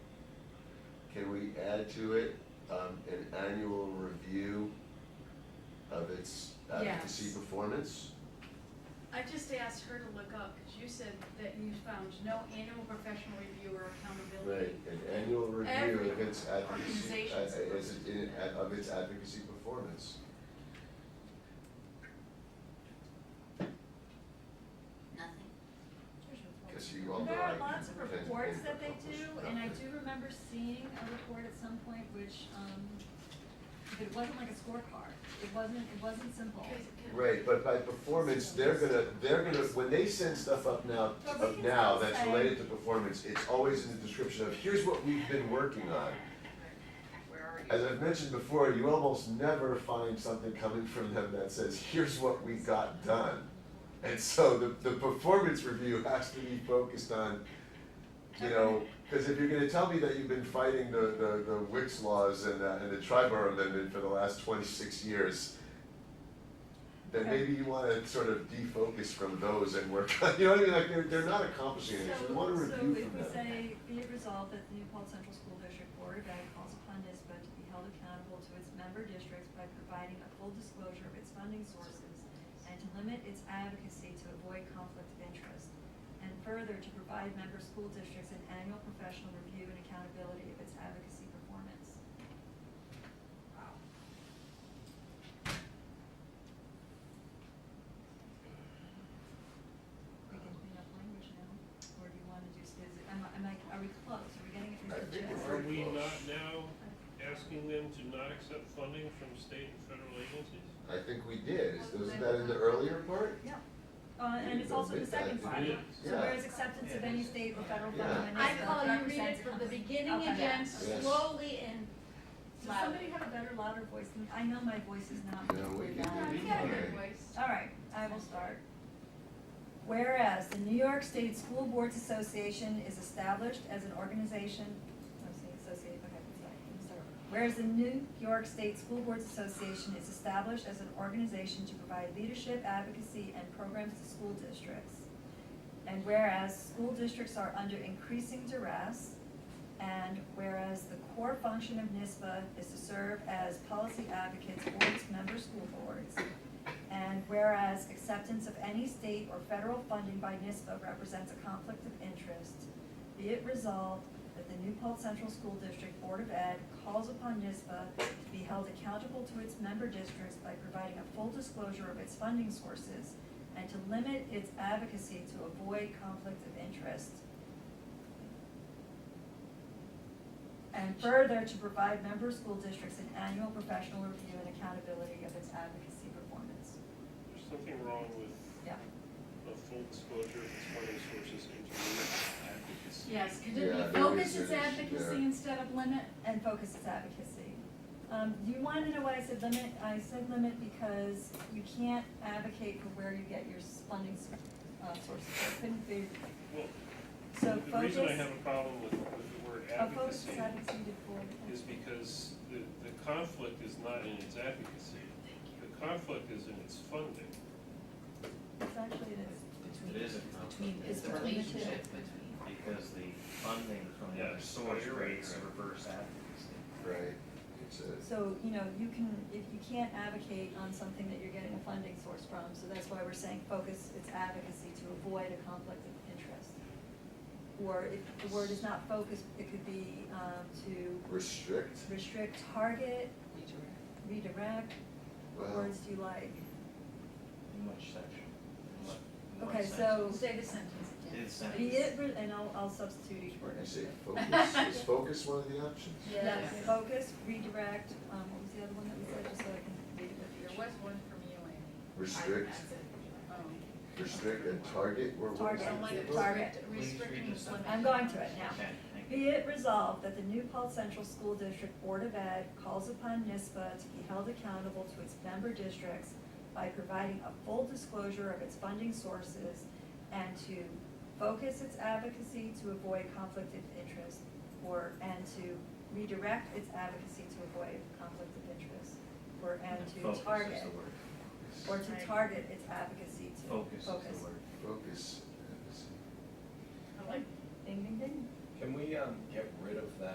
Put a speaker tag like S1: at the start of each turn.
S1: can we add to it, um, an annual review of its advocacy
S2: Yes.
S1: performance?
S2: I just asked her to look up, because you said that you found no annual professional review or
S1: Right,
S2: accountability.
S1: an annual review of its
S2: Every
S1: advocacy, uh,
S2: organization's
S1: is it in, uh,
S2: supposed to-
S1: of its advocacy performance.
S3: Nothing.
S1: Cause you all know
S4: There
S1: I
S4: are lots of
S1: tend to
S4: reports
S1: think
S4: that they
S1: publish
S4: do, and I
S1: nothing.
S4: do remember seeing a report at some point which, um, it wasn't like a scorecard, it wasn't, it wasn't simple.
S2: Because-
S1: Right, but by performance, they're gonna, they're gonna, when they send stuff up now,
S4: But we
S1: up
S4: can
S1: now,
S4: still
S1: that's
S4: say-
S1: related to performance, it's always in the description of, here's what we've been working on.
S3: Where are you?
S1: As I've mentioned before, you almost never find something coming from them that says, here's what we got done. And so the, the performance review has to be focused on, you know, cause if you're gonna tell me that you've been fighting the, the, the Wicks laws and, uh, and the Triborough Amendment for the last twenty-six years, then
S4: Okay.
S1: maybe you wanna sort of defocus from those and work on, you know what I mean, like, they're, they're not accomplishing anything, we want a review from them.
S4: So, so if we say, be it resolved that the Newport Central School District Board of Ed calls upon NISBA to be held accountable to its member districts by providing a full disclosure of its funding sources and to limit its advocacy to avoid conflict of interest. And further, to provide member school districts an annual professional review and accountability of its advocacy performance. We can clean up language now, or do you wanna do, is, it- am I, am I, are we close, are we getting it?
S1: I think
S4: Yes.
S1: we're-
S5: Are we not now asking them to not accept funding from state and federal agencies?
S1: I think we did, Is- wasn't that in the earlier part?
S4: Yeah, uh, and it's also the second part,
S5: Yeah.
S4: so whereas acceptance of any state or federal government.
S2: I
S4: is
S2: call you read it
S4: represents-
S2: from the beginning
S4: Okay.
S2: again,
S1: Yes.
S2: slowly and
S4: Does
S2: loud.
S4: somebody have a better louder voice than, I know my voice is not.
S1: No, we
S4: particularly
S1: can
S4: loud.
S1: do
S2: You got a good voice.
S4: All right, I will start. Whereas the New York State School Boards Association is established as an organization, I'm saying associate, okay, sorry, I'm sorry. Whereas the New York State School Boards Association is established as an organization to provide leadership, advocacy, and programs to school districts. And whereas school districts are under increasing duress, and whereas the core function of NISBA is to serve as policy advocates for its member school boards, and whereas acceptance of any state or federal funding by NISBA represents a conflict of interest, be it resolved that the New Paltz Central School District Board of Ed calls upon NISBA to be held accountable to its member districts by providing a full disclosure of its funding sources and to limit its advocacy to avoid conflict of interest. And further, to provide member school districts an annual professional review and accountability of its advocacy performance.
S5: There's something wrong with
S4: Yeah.
S5: a full disclosure of its funding sources and to limit advocacy.
S2: Yes, could
S1: Yeah,
S2: it
S1: there
S2: be focus
S1: is
S2: its
S1: an issue there.
S2: advocacy instead of limit?
S4: And focus its advocacy. Um, you wanted to know why I said limit? I said limit because you can't advocate for where you get your s- funding s- uh, sources. It couldn't be,
S5: Well,
S4: so
S5: the
S4: focus.
S5: reason I have a problem with, with the word
S4: uh, focus
S5: advocacy
S4: is advocacy to forward.
S5: is because the, the conflict is not in its advocacy. The conflict is in its funding.
S4: It's actually, it's,
S6: It is a conflict,
S3: Between,
S4: It's
S3: it's the
S4: between the two.
S3: relationship between.
S6: because the funding from the
S5: Yeah,
S6: other source
S5: you're right,
S6: creates
S5: you're right.
S6: reverse advocacy.
S1: Right, it's a,
S4: so, you know, you can, if you can't advocate on something that you're getting a funding source from, so that's why we're saying focus its advocacy to avoid a conflict of interest. Or if the word is not focused, it could be, um, to
S1: restrict,
S4: restrict, target, redirect, what
S1: Well-
S4: words do you like?
S6: In which section? In what- in what
S4: Okay,
S6: section?
S4: so,
S2: Say the sentence again.
S6: It's sentence.
S4: be it, re- and I'll, I'll substitute each word.
S1: you say focus, is focus one of the options?
S2: Yes.
S4: Focus, redirect, um, what was the other one that we said, just so I can read it with you.
S2: There was one from you, Amy.
S1: Restrict,
S2: Oh.
S1: restrict and target, where what was
S4: Target,
S1: the
S2: Don't let it
S1: keywords?
S4: Target.
S2: restrict-
S6: Please read
S2: restricting
S6: the
S2: is
S6: sentence.
S2: limiting.
S4: I'm going to it now.
S6: Okay, thank you.
S4: Be it resolved that the New Paltz Central School District Board of Ed calls upon NISBA to be held accountable to its member districts by providing a full disclosure of its funding sources and to focus its advocacy to avoid conflict of interest or, and to redirect its advocacy to avoid conflict of interest or, and
S6: Focus
S4: to
S6: is
S4: target,
S6: the word.
S4: or to target its advocacy to
S6: Focus
S4: focus.
S6: is the word.
S1: Focus, advocacy.
S2: I like
S4: Ding, ding, ding.
S7: Can we, um, get rid of that